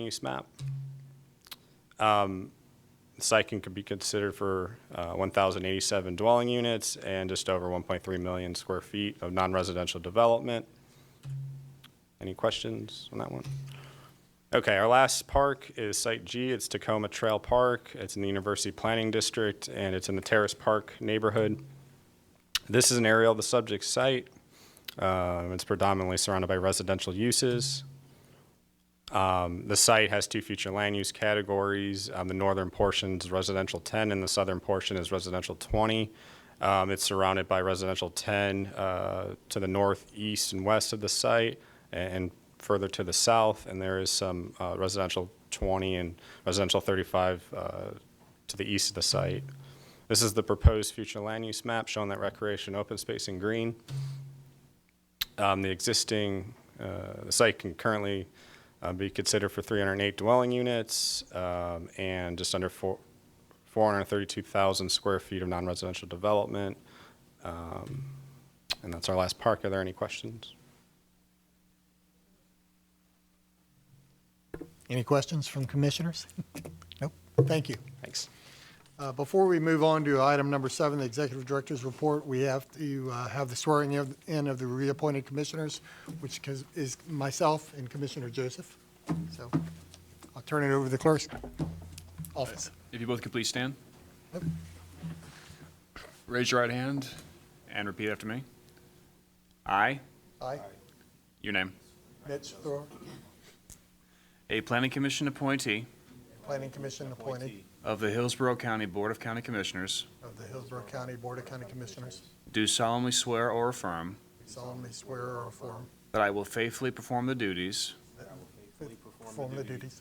use map. Um, The site can could be considered for uh, 1,087 dwelling units and just over 1.3 million square feet of non-residential development. Any questions on that one? Okay, our last park is Site G. It's Tacoma Trail Park. It's in the University Planning District, and it's in the Terrace Park neighborhood. This is an area of the subject site. Um, It's predominantly surrounded by residential uses. The site has two future land use categories. Um, the northern portion is residential 10, and the southern portion is residential 20. Um, it's surrounded by residential 10 uh, to the north, east, and west of the site, a- and, further to the south. And there is some uh, residential 20 and residential 35 uh, to the east of the site. This is the proposed future land use map showing that recreation, open space, and green. Um, The existing, uh, the site can currently uh, be considered for 308 dwelling units um, and just under four- 432,000 square feet of non-residential development. Um, And that's our last park. Are there any questions? Any questions from commissioners? Nope, thank you. Thanks. Uh, Before we move on to item number seven, the executive director's report, we have to uh, have the swearing in- in of the reappointed commissioners, which is- is myself and Commissioner Joseph. So I'll turn it over to the clerk's office. If you both could please stand. Raise your right hand and repeat after me. I, Aye. your name, Mitch Thor, a planning commission appointee Planning Commission appointee of the Hillsborough County Board of County Commissioners, of the Hillsborough County Board of County Commissioners, do solemnly swear or affirm solemnly swear or affirm, that I will faithfully perform the duties perform the duties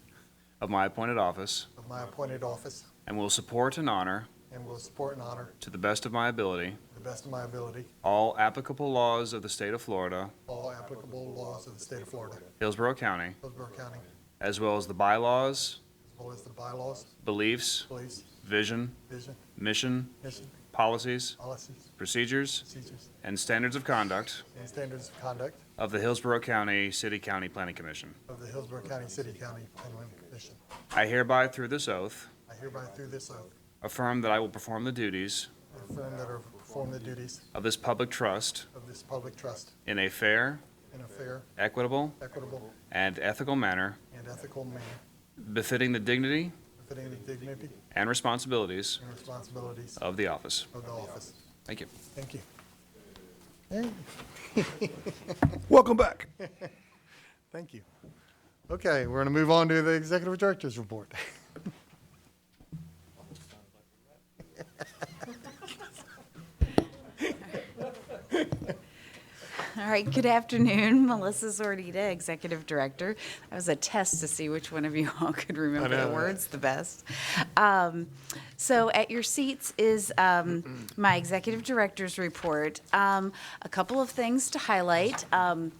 of my appointed office of my appointed office, and will support and honor, and will support and honor, to the best of my ability, to the best of my ability, all applicable laws of the state of Florida, all applicable laws of the state of Florida, Hillsborough County, Hillsborough County, as well as the bylaws, as well as the bylaws, beliefs, beliefs, vision, vision, mission, mission, policies, policies, procedures, procedures, and standards of conduct and standards of conduct of the Hillsborough County City County Planning Commission. of the Hillsborough County City County Planning Commission. I hereby, through this oath, I hereby through this oath affirm that I will perform the duties affirm that I will perform the duties of this public trust of this public trust in a fair, in a fair, equitable, equitable, and ethical manner and ethical manner befitting the dignity befitting the dignity and responsibilities and responsibilities of the office. of the office. Thank you. Thank you. Hey, Welcome back. Thank you. Okay, we're going to move on to the executive director's report. All right, good afternoon. Melissa Zordita, Executive Director. That was a test to see which one of you all could remember know, the right? words the best. Um, So at your seats is um, my Executive Director's report. Um, A couple of things to highlight. Um,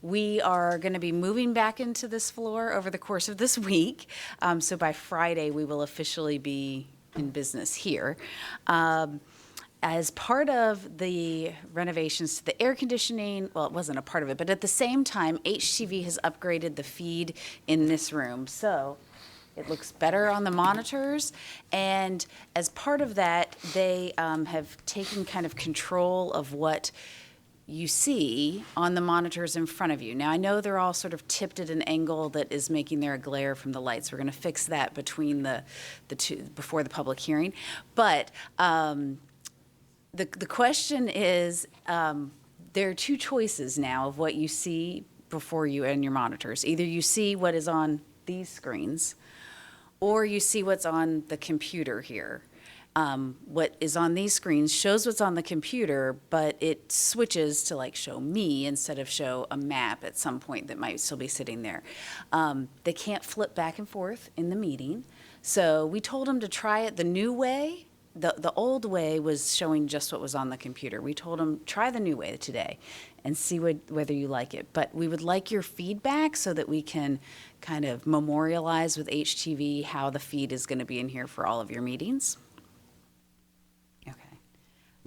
we are going to be moving back into this floor over the course of this week. Um, so by Friday, we will officially be in business here. Um, as part of the renovations to the air conditioning, well, it wasn't a part of it, but at the same time, HCV has upgraded the feed in this room. So it looks better on the monitors. And as part of that, they um, have taken kind of control of what you see on the monitors in front of you. Now, I know they're all sort of tipped at an angle that is making there a glare from the lights. We're going to fix that between the, the two, before the public hearing. But um, the, the question is, um, there are two choices now of what you see before you and your monitors. Either you see what is on these screens, or you see what's on the computer here. Um, what is on these screens shows what's on the computer, but it switches to like show me instead of show a map at some point that might still be sitting there. Um, they can't flip back and forth in the meeting. So we told them to try it the new way. The, the old way was showing just what was on the computer. We told them, try the new way today and see what, whether you like it. But we would like your feedback so that we can kind of memorialize with HTV how the feed is going to be in here for all of your meetings. Okay.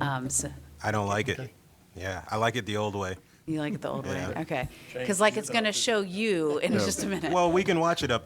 Um, so, I don't like it. Yeah, I like it the old way. You like it the old way? Okay. Because like it's going to show you in just a minute. Well, we can watch it up